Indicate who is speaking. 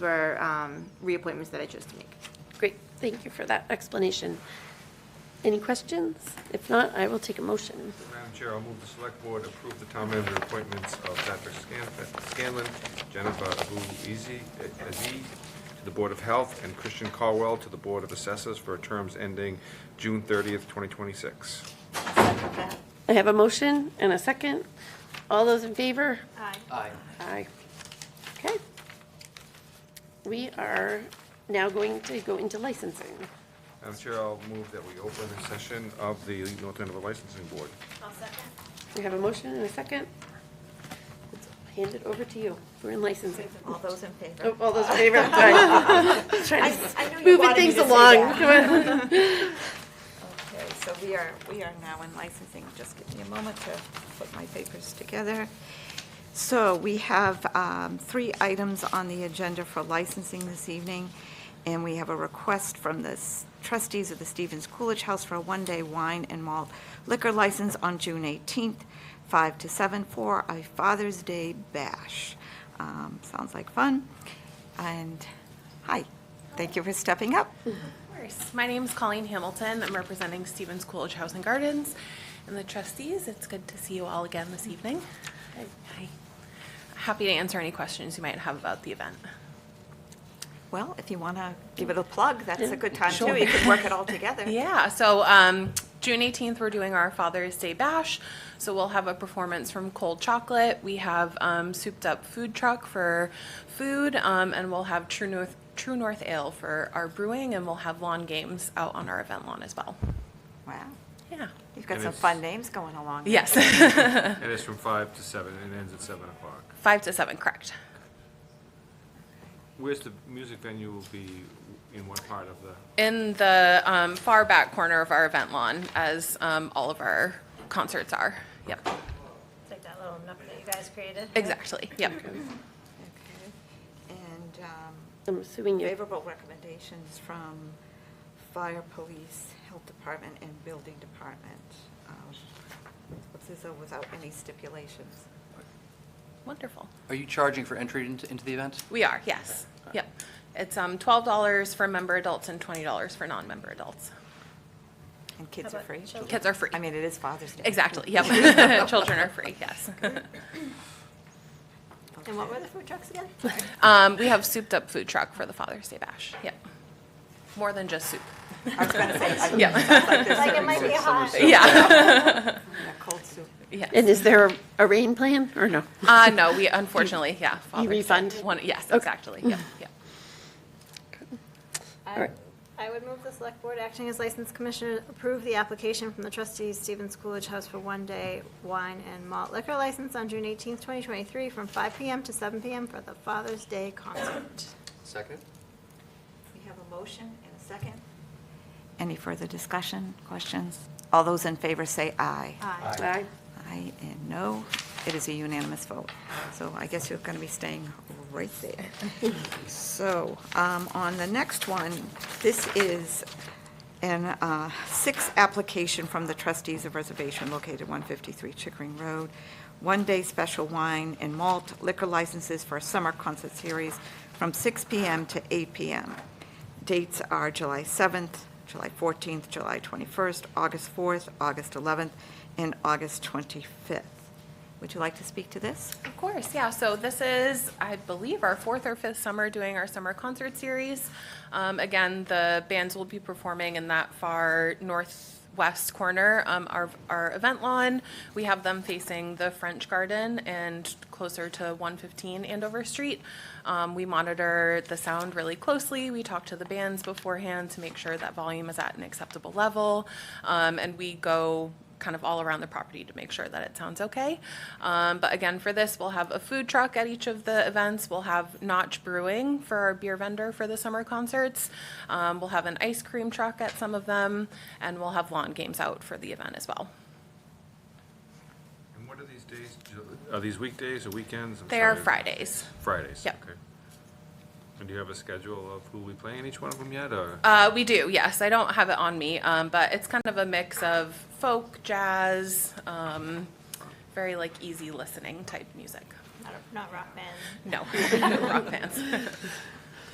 Speaker 1: for um, reappointments that I chose to make.
Speaker 2: Great, thank you for that explanation. Any questions? If not, I will take a motion.
Speaker 3: Madam Chair, I'll move the select board approve the town manager appointments of Patrick Scan- Scanlon, Jennifer Abu Easy, uh, Aziz to the Board of Health, and Christian Caldwell to the Board of Assessors for terms ending June 30th, 2026.
Speaker 2: I have a motion and a second. All those in favor?
Speaker 1: Aye.
Speaker 4: Aye.
Speaker 2: Aye. Okay. We are now going to go into licensing.
Speaker 3: Madam Chair, I'll move that we open the session of the North Andover Licensing Board.
Speaker 2: We have a motion and a second. Let's Hand it over to you. We're in licensing.
Speaker 5: All those in favor?
Speaker 2: Oh, All those in favor? I'm sorry. Just trying to-
Speaker 5: I know you
Speaker 2: Moving
Speaker 5: wanted me
Speaker 2: things
Speaker 5: to say
Speaker 2: along.
Speaker 5: that.
Speaker 2: Come on.
Speaker 5: Okay, so we are, we are now in licensing. Just give me a moment to put my papers together. So we have um, three items on the agenda for licensing this evening, and we have a request from the s- trustees of the Stevens Coolidge House for a one-day wine and malt liquor license on June 18th, 5 to 7, for a Father's Day bash. Um, Sounds like fun. And, hi, thank you for stepping up.
Speaker 6: course. My name's Colleen Hamilton. I'm representing Stevens Coolidge House and Gardens and the trustees. It's good to see you all again this evening. Hi. Happy to answer any questions you might have about the event.
Speaker 5: Well, if you want to give it a plug, that's a good time too. You could work it all together.
Speaker 6: Yeah, so um, June 18th, we're doing our Father's Day Bash. So we'll have a performance from Cold Chocolate. We have um, souped up food truck for food, um, and we'll have True North, True North Ale for our brewing, and we'll have lawn games out on our event lawn as well.
Speaker 5: Wow.
Speaker 6: Yeah.
Speaker 5: You've got
Speaker 3: And
Speaker 5: some
Speaker 3: it's-
Speaker 5: fun names going along. there.
Speaker 6: Yes. Uh-huh.
Speaker 3: And it's from 5 to 7 and ends at 7 o'clock.
Speaker 6: Five to seven, correct.
Speaker 3: Where's the music venue will be, in what part of the?
Speaker 6: In the um, far back corner of our event lawn, as um, all of our concerts are. Yep,
Speaker 7: Like that little nook that you guys created?
Speaker 6: exactly. Yep.
Speaker 5: Okay. And um,
Speaker 2: I'm assuming you
Speaker 5: favorable recommendations from fire, police, health department, and building department. Um, This is uh, without any stipulations.
Speaker 6: Wonderful.
Speaker 4: Are you charging for entry into, into the event?
Speaker 6: We are, yes. Yep. It's um, $12 for member adults and $20 for non-member adults.
Speaker 5: And kids
Speaker 7: How
Speaker 5: are
Speaker 7: about
Speaker 5: free.
Speaker 7: children?
Speaker 6: Kids are free.
Speaker 5: I mean, it is Father's Day.
Speaker 6: Exactly, yep. Children are free, yes.
Speaker 7: And what were the food trucks again?
Speaker 6: Um, We have souped-up food truck for the Father's Day Bash. Yep. More than just soup.
Speaker 5: I was going to say, I-
Speaker 6: Yeah,
Speaker 7: Like it might be hot.
Speaker 6: yeah.
Speaker 5: yeah, cold soup.
Speaker 6: Yes.
Speaker 2: And is there a- a rain plan or no?
Speaker 6: Uh, No, we unfortunately, yeah. Father's Day.
Speaker 2: refund?
Speaker 6: One- Yes, exactly, yep, yep.
Speaker 2: All
Speaker 7: I
Speaker 2: right.
Speaker 7: I would move the select board acting as license commissioner approve the application from the trustees Stevens Coolidge House for one-day wine and malt liquor license on June 18th, 2023, from 5 PM to 7 PM for the Father's Day concert.
Speaker 4: Second.
Speaker 5: We have a motion and a second. Any further discussion, questions? All those in favor say aye.
Speaker 7: Aye.
Speaker 2: Aye.
Speaker 5: Aye and no. It is a unanimous vote. So I guess you're going to be staying right there. So um, on the next one, this is an uh, sixth application from the trustees of reservation located 153 Chickering Road. One-day special wine and malt liquor licenses for a summer concert series from 6 PM to 8 PM. Dates are July 7th, July 14th, July 21st, August 4th, August 11th, and August 25th. Would you like to speak to this?
Speaker 6: Of course, yeah. So this is, I believe, our fourth or fifth summer doing our summer concert series. Um, again, the bands will be performing in that far northwest corner, um, our, our event lawn. We have them facing the French Garden and closer to 115 Andover Street. Um, we monitor the sound really closely. We talk to the bands beforehand to make sure that volume is at an acceptable level. Um, and we go kind of all around the property to make sure that it sounds okay. Um, but again, for this, we'll have a food truck at each of the events. We'll have Notch Brewing for our beer vendor for the summer concerts. Um, we'll have an ice cream truck at some of them, and we'll have lawn games out for the event as well.
Speaker 3: And what are these days? Are these weekdays or weekends? I'm
Speaker 6: They are
Speaker 3: sorry.
Speaker 6: Fridays.
Speaker 3: Fridays?
Speaker 6: Yep.
Speaker 3: okay. And do you have a schedule of who we play in each one of them yet, or?
Speaker 6: Uh, we do, yes. I don't have it on me, um, but it's kind of a mix of folk, jazz, um, very like easy listening type music.
Speaker 7: Not- Not rock bands.
Speaker 6: No, no rock bands.